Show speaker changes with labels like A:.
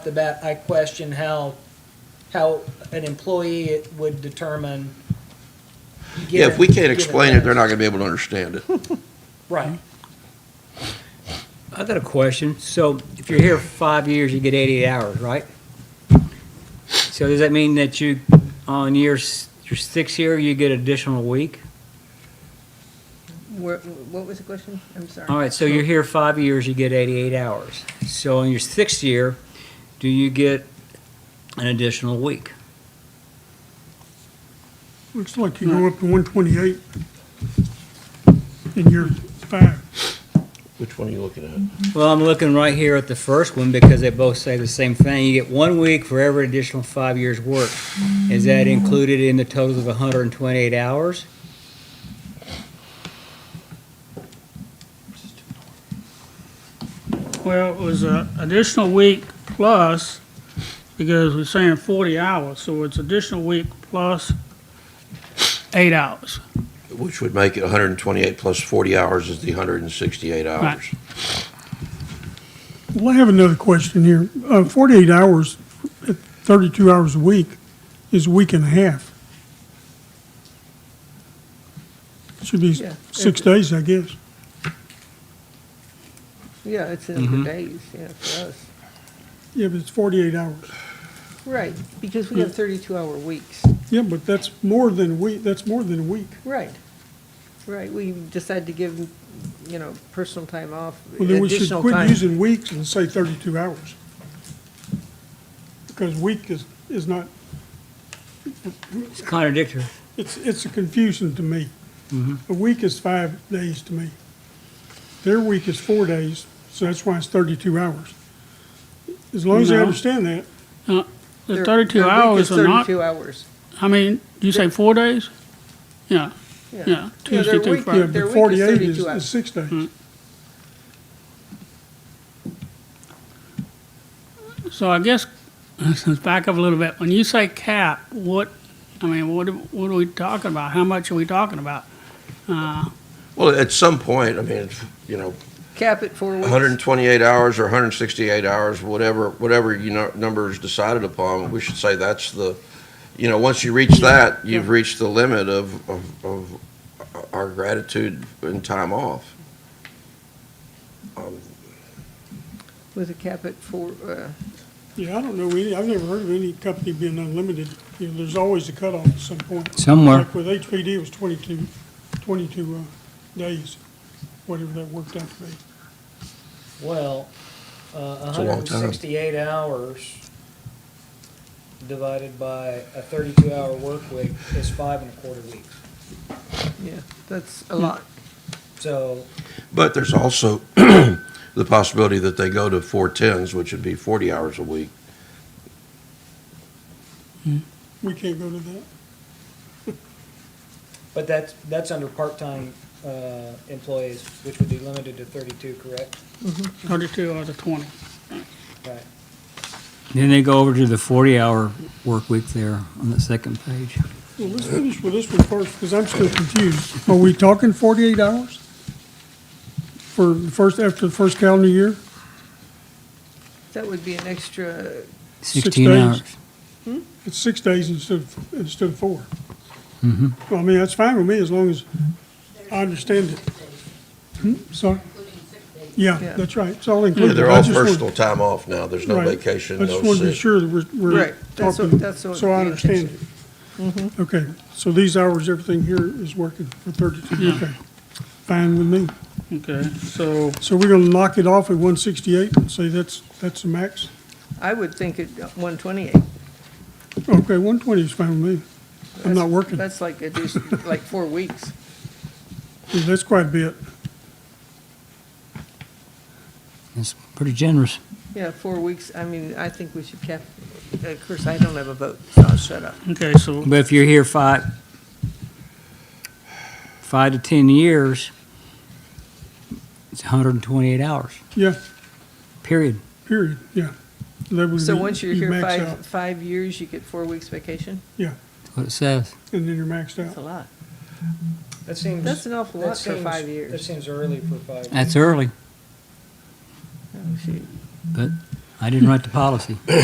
A: the bat, I question how, how an employee would determine.
B: Yeah, if we can't
A: given-
B: explain it, they're not gonna be able to understand it.
A: Right.
C: I got a question. So if you're here for five years, you get 88 hours, right? So does that mean that you, on your, s- your sixth year, you get additional week?
D: Where, what was the question? I'm sorry.
C: All right, so you're here five years, you get 88 hours. So in your sixth year, do you get an additional week?
E: Looks like you go up to one twenty-eight in year five.
B: Which one are you looking at?
C: Well, I'm looking right here at the first one because they both say the same thing. You get one week for every additional five years' work. Is that included in the total of 128 hours?
F: Well, it was an additional week plus, because we're saying 40 hours, so it's additional week plus eight hours.
B: Which would make it hundred and twenty-eight plus forty hours is the hundred and sixty-eight hours.
E: Well, I have another question here. Uh, forty-eight hours, at thirty-two hours a week is a week and a half. Should be
D: Yeah.
E: six days, I guess.
D: Yeah, it's in
C: Mm-hmm.
D: the days, yeah, for us.
E: Yeah, but it's forty-eight hours.
D: Right, because we have thirty-two hour weeks.
E: Yeah, but that's more than a week, that's more than a week.
D: Right, right. We decide to give, you know, personal time off,
E: Well, then we should
D: additional
E: quit
D: time.
E: using weeks and say thirty-two hours. Because week is, is not,
C: It's contradictory.
E: It's, it's a confusion to me.
F: Mm-hmm.
E: A week is five days to me. Their week is four days, so that's why it's thirty-two hours. As long as I
F: No.
E: understand that,
F: Uh, The
D: Their-
F: 32
D: their week
F: hours
D: is
F: are not,
D: Thirty-two hours.
F: I mean, do you say four days? Yeah, yeah,
D: their
F: Tuesday through
D: week-
E: yeah,
F: Friday.
D: their
E: but
D: week is
E: forty-eight is,
D: 32 hours.
E: is six days.
F: Mm. So I guess, let's back up a little bit. When you say cap, what, I mean, what, what are we talking about? How much are we talking about? Uh,
B: Well, at some point, I mean, it's, you know,
D: Cap at four weeks.
B: hundred and twenty-eight hours or hundred and sixty-eight hours, whatever, whatever you know, number is decided upon, we should say that's the, you know, once you reach that, you've reached the limit of, of, of our gratitude and time off.
D: With a cap at four, uh,
E: Yeah, I don't know any, I've never heard of any company being unlimited. You know, there's always a cutoff at some point.
C: Somewhere.
E: Like with HPD, it was 22 22, uh, days, whatever that worked out to be.
A: Well, uh,
B: It's a
A: hundred
B: long
A: and
B: time.
A: sixty-eight hours divided by a thirty-two hour work week is five and a quarter weeks.
D: yeah, that's a lot.
A: So,
B: But there's also the possibility that they go to four tens, which would be forty hours a week.
E: We can't go to that.
A: but that's, that's under part-time, uh, employees, which would be limited to thirty-two, correct?
F: 32 out of 20.
A: Right.
C: Then they go over to the 40-hour work week there on the second page.
E: Well, let's finish with this one first, because I'm still confused. Are we talking 48 hours? For the first, after the first calendar year?
D: That would be an extra,
E: Six
C: 16
E: days.
C: hours.
E: It's six days instead of, instead of four.
B: Mm-hmm.
E: Well, I mean, that's fine with me, as long as I understand it. Hmm, Sorry?
D: Yeah.
E: Yeah, that's right, it's all included.
B: They're
E: I
B: all
E: just wanted-
B: personal time off now, there's no
E: right.
B: vacation,
E: I
B: no sick.
E: just want to be sure that we're,
D: Right,
E: we're
D: that's what-
E: talking,
D: that's what
E: so I
D: the
E: understand
D: intention- Mm-hmm.
E: it. Okay, so these hours, everything here is working for 32, okay. Fine with me.
F: Okay, so
E: So we're gonna knock it off at one sixty-eight and say that's, that's the max?
D: I would think it, one twenty-eight.
E: Okay, one twenty is fine with me. I'm not working.
D: That's like, addition- like four weeks.
E: Yeah, That's quite a bit.
C: It's pretty generous.
D: Yeah, four weeks, I mean, I think we should cap, of course, I don't have a vote, so I'll shut up.
F: Okay, so,
C: But if you're here five, five to 10 years, it's 128 hours,
E: Yeah,
C: period.
E: period, yeah. That would
D: So
E: be-
D: once you're
E: Mm-hmm. you
D: here
E: max out,
D: five, five years, you get four weeks vacation?
E: Yeah,
C: That's what it says.
E: and then you're maxed
D: That's a
E: out.
D: lot.
A: That seems.
D: That's an awful
A: that
D: lot for
A: seems-
D: five
A: That
D: years.
A: seems early for five.
C: That's early,
D: Oh, shoot.
C: but I didn't write the policy.